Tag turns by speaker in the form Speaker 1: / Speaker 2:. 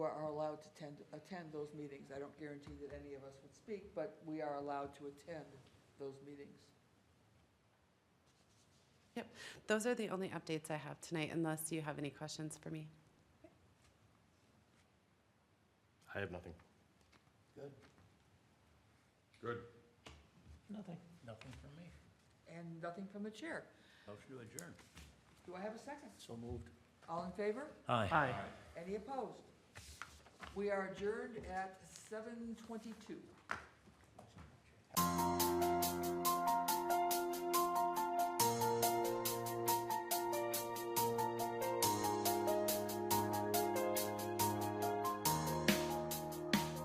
Speaker 1: who are allowed to attend, attend those meetings. I don't guarantee that any of us would speak, but we are allowed to attend those meetings.
Speaker 2: Those are the only updates I have tonight, unless you have any questions for me.
Speaker 3: I have nothing.
Speaker 4: Good.
Speaker 3: Good.
Speaker 4: Nothing. Nothing from me.
Speaker 1: And nothing from the chair.
Speaker 4: Motion to adjourn.
Speaker 1: Do I have a second?
Speaker 4: So moved.
Speaker 1: All in favor?
Speaker 4: Aye.
Speaker 1: Any opposed? We are adjourned at seven twenty-two.